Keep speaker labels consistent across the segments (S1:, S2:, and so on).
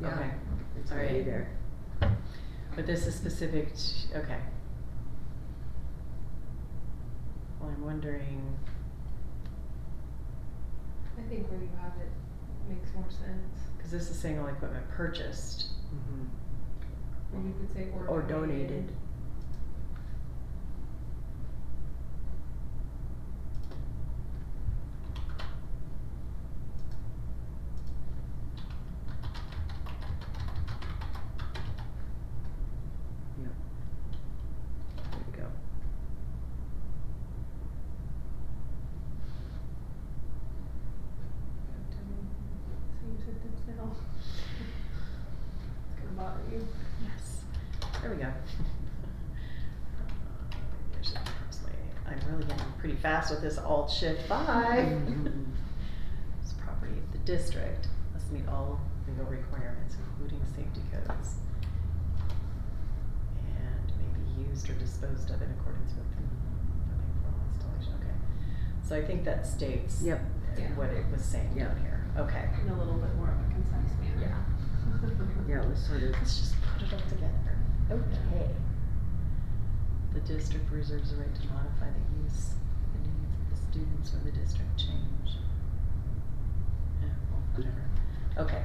S1: Yeah.
S2: Okay,
S1: It's
S2: All right.
S1: already there.
S2: but this is specific to, okay. Well, I'm wondering,
S3: I think where you have it makes more sense.
S2: cause this is saying all equipment purchased
S1: Mm-hmm.
S3: Or you could say
S2: or donated.
S1: There we go.
S3: Same sentence now. It's gonna bother you.
S2: Yes, there we go. Oh, There's- there's my- I'm really getting pretty fast with this alt shift five.
S1: Mhm.
S2: It's property of the district, must meet all legal requirements, including safety codes. And may be used or disposed of in accordance with the building formal installation, okay. So I think that states
S1: Yep.
S3: Yeah.
S2: what it was saying
S1: Yeah.
S2: down here, okay.
S3: In a little bit more of a concise manner. Yeah.
S1: Yeah, it was sort of,
S2: Let's just put it all together. Okay. The district reserves the right to modify the use and needs of the students or the district change. Eh, well, whatever. Okay,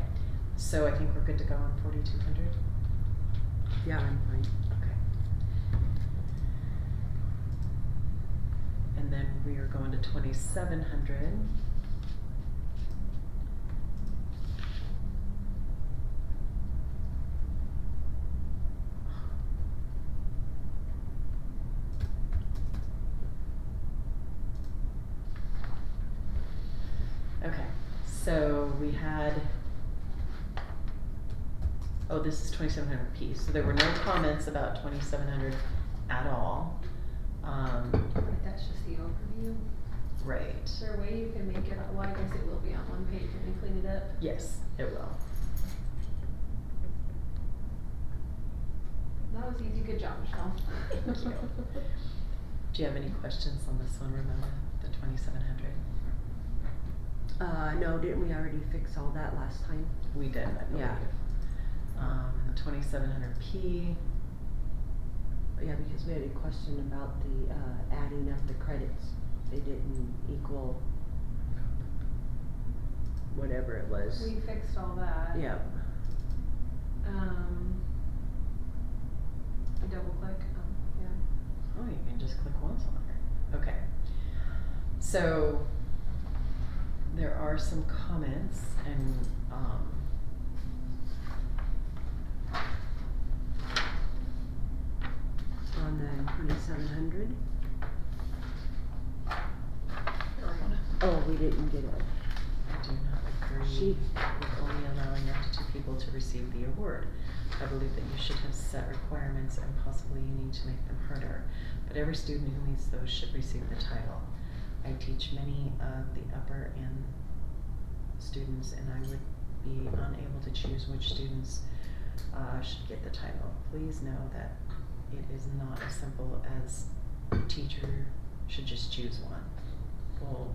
S2: so I think we're good to go on forty-two hundred?
S1: yeah, I'm fine.
S2: Okay. And then we are going to twenty-seven hundred. Okay, so we had. Oh, this is twenty-seven hundred P, so there were no comments about twenty-seven hundred at all. Um,
S3: But that's just the overview.
S2: right,
S3: Is there a way you can make it, well, I guess it will be on one page when we clean it up.
S2: yes, it will.
S3: That was easy, good job, Michelle.
S2: Thank you. Do you have any questions on this one, Ramona, the twenty-seven hundred?
S1: Uh, no, didn't we already fix all that last time?
S2: We did, I believe.
S1: Yeah.
S2: Um, twenty-seven hundred P,
S1: Yeah, because we had a question about the, uh, adding up the credits. They didn't equal whatever it was.
S3: We fixed all that.
S1: Yep.
S3: Um. I double click, um, yeah.
S2: oh, you can just click once on her, okay. So, there are some comments and, um,
S1: On the twenty-seven hundred?
S2: Ramona?
S1: Oh, we didn't get it.
S2: I do not agree
S1: She-
S2: with only allowing up to two people to receive the award. I believe that you should have set requirements and possibly you need to make them harder. But every student who meets those should receive the title. I teach many of the upper end students and I would be unable to choose which students uh, should get the title. Please know that it is not as simple as teacher should just choose one. Well,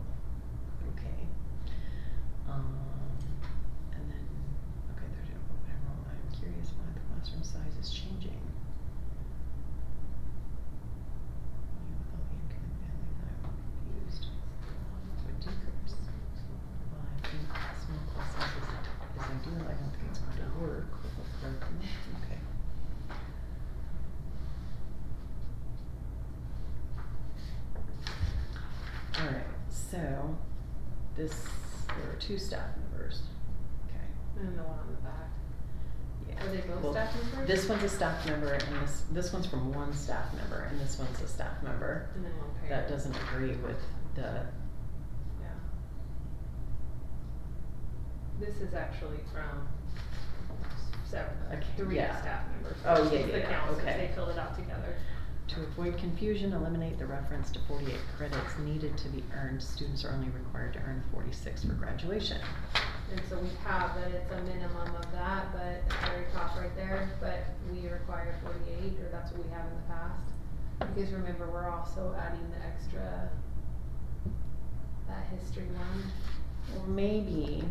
S2: okay. Um, and then, okay, there's no, whatever, I'm curious why the classroom size is changing. You with all the incoming families, I'm confused. Would decrease. Well, I think small class size is, is ideal, I don't think it's going to work, okay. Alright, so, this, there are two staff members, okay.
S3: And the one on the back.
S2: Yeah.
S3: Are they both
S2: Well,
S3: staff members?
S2: This one's a staff member and this, this one's from one staff member and this one's a staff member
S3: And then one page.
S2: that doesn't agree with the,
S3: Yeah. This is actually from several,
S2: Okay,
S3: three
S2: yeah.
S3: staff members.
S2: Oh,
S3: which
S2: yeah,
S3: is
S2: yeah,
S3: the
S2: yeah,
S3: council,
S2: okay.
S3: They filled it out together.
S2: to avoid confusion, eliminate the reference to forty-eight credits needed to be earned. Students are only required to earn forty-six for graduation.
S3: And so we have that it's a minimum of that, but at the very top right there, but we require forty-eight, or that's what we have in the past. Because remember, we're also adding the extra, that history one.
S2: Well, maybe